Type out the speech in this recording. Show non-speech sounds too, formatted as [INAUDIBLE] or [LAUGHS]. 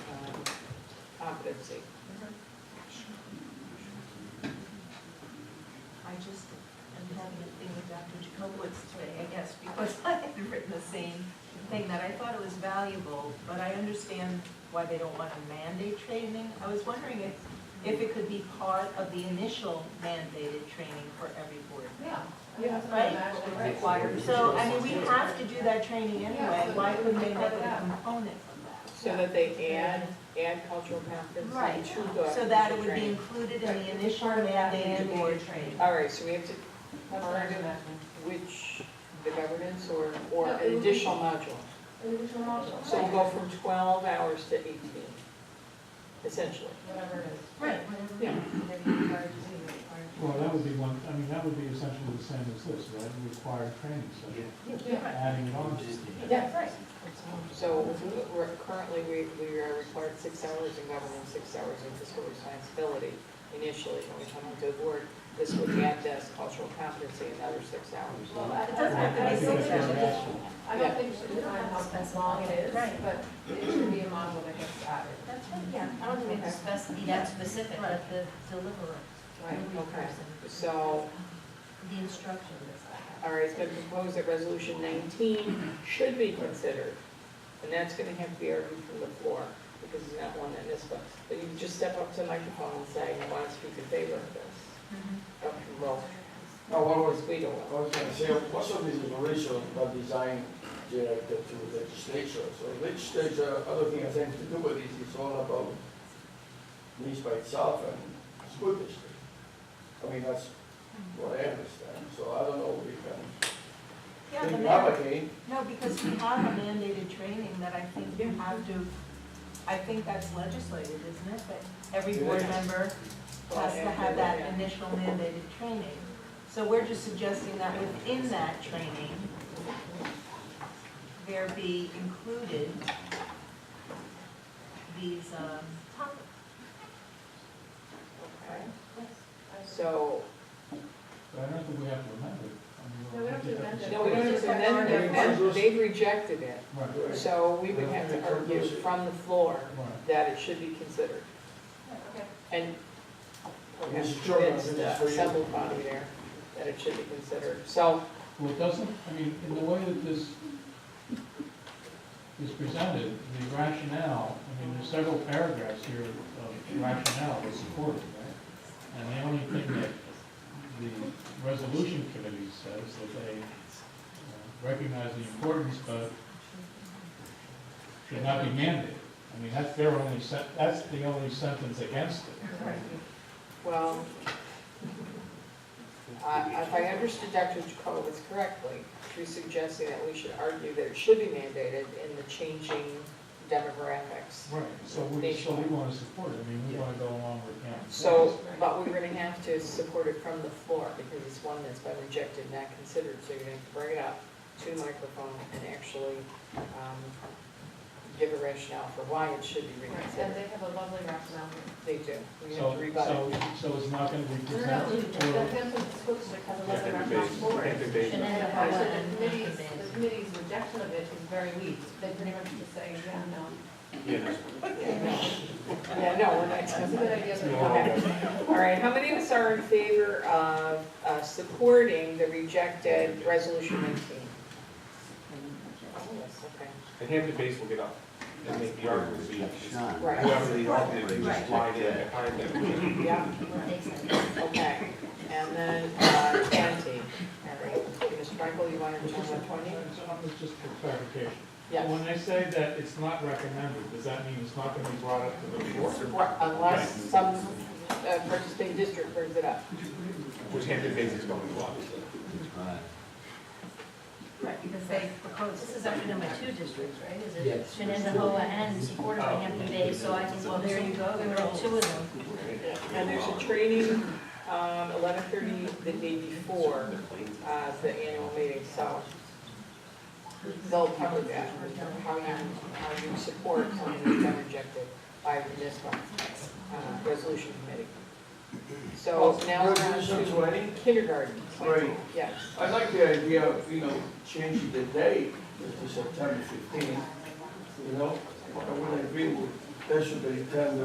um, fifty. I just am having a thing with Dr. Jacobowitz today, I guess, because [LAUGHS] I had written the same thing, that I thought it was valuable, but I understand why they don't want to mandate training. I was wondering if, if it could be part of the initial mandated training for every board. Yeah. Yeah, right. Required. So, I mean, we have to do that training anyway, why couldn't they make it a component from that? So that they add, add cultural competency Right, to the. so that it would be training. included in the initial mandated board training. All right, so we have to, That's what I do that. which, the governance or, or No, it an would be- additional module? Individual module. So you go from twelve hours to eighteen, essentially. Whatever it is. Right. Whatever Yeah. it is, they're required to do, required to do. Well, that would be one, I mean, that would be essentially the same as this, right? Required training, so Yeah. adding it on. That's right. So we're, currently, we, we are required six hours in governance, six hours in fiscal responsibility initially, when we come into the board. This would add this cultural competency another six hours. Well, I- It doesn't have to be I Because think six we should we're just- asking. I don't think we should define how long it is, Right. but it should be a module that gets added. That's right, yeah. I don't think we have to spec- be that specific, but the deliverer, Right. the lead Okay. person, So, the instruction that's all right, it's been proposed that resolution nineteen should be considered. And that's gonna have to be argued from the floor, because it's not one that is, but, but you can just step up to the microphone and say, I want to speak in favor of this. Okay, well, No, what was, because we don't. I was gonna say, most of these operations are designed directed to legislature. So legislature, other thing has anything to do with this, it's all about police by itself and school district. I mean, that's what I understand, so I don't know, we can, Yeah, the we man, have again, no, because we have a mandated training that I think you have to, I think that's legislated, isn't it? That every board It is. Oh, member has to have that initial mandated training. So we're just suggesting that within that training, there be included these, um, topics. Okay, so, But I don't think we have to amend it. I mean, No, we don't have to we'll- amend it. no, we don't have to amend it, and they've rejected it. Right, So we would have to argue from the floor right. that it should be considered. Okay. And we have to Mr. Chairman, convince the assembled body there that it should be considered. So, Well, it doesn't, I mean, in the way that this is presented, the rationale, I mean, there's several paragraphs here of rationale that support it, right? And the only thing that the resolution committee says, that they uh, recognize the importance, but should not be mandated. I mean, that's their only, sen- that's the only sentence against it. well, I- if I understood Dr. Jacobowitz correctly, she's suggesting that we should argue that it should be mandated in the changing demographics. Right. So we, so we want to support it, I mean, we want to go along with him. So, but we're gonna have to support it from the floor, because it's one that's been rejected, not considered, so you're gonna have to bring it up to the microphone and actually, um, give a rationale for why it should be Right, And they reconsidered. have a lovely rationale. They do, we have So, to rebut it. so, so it's not gonna be No, no, no, presented, the or, Hampton School District has a Yeah, lovely they're rationale based- for it. they're based- And then- Yeah, so the committee's, the committee's rejection of it is very weak. They pretty much just say, yeah, no. Yeah. Yeah, no, we're not. It's a good idea, but no. Okay. All right, how many of us are in favor of, uh, supporting the rejected resolution nineteen? Oh, yes, okay. And Hampton Bays will get up and make the argument, be Right, whoever the argument, is, just slide in behind them. yeah. takes it. Okay, and then, uh, twenty, all right, Mr. Frankel, you want to just, turn so on twenty? I'm just for clarification. Yes, When they say that it's not recommended, does that mean it's not gonna be brought up to the floor? unless some uh, participating district brings it up. Which Hampton Bays is going to want. Right, because they oh, propose, this is actually number two districts, right? Is it Shenandoah and supported by Hampton Bay, so I think, well, there you go, there are two of them. And there's a training, um, eleven thirty the day before, uh, the annual meeting, so they'll cover that, how you, how you support something that's been rejected by the municipal, uh, resolution committee. So now we're on Resolution to 20? kindergarten. Right. Yes. I like the idea of, you know, changing the date to September fifteenth, you know? I would agree with, that should be ten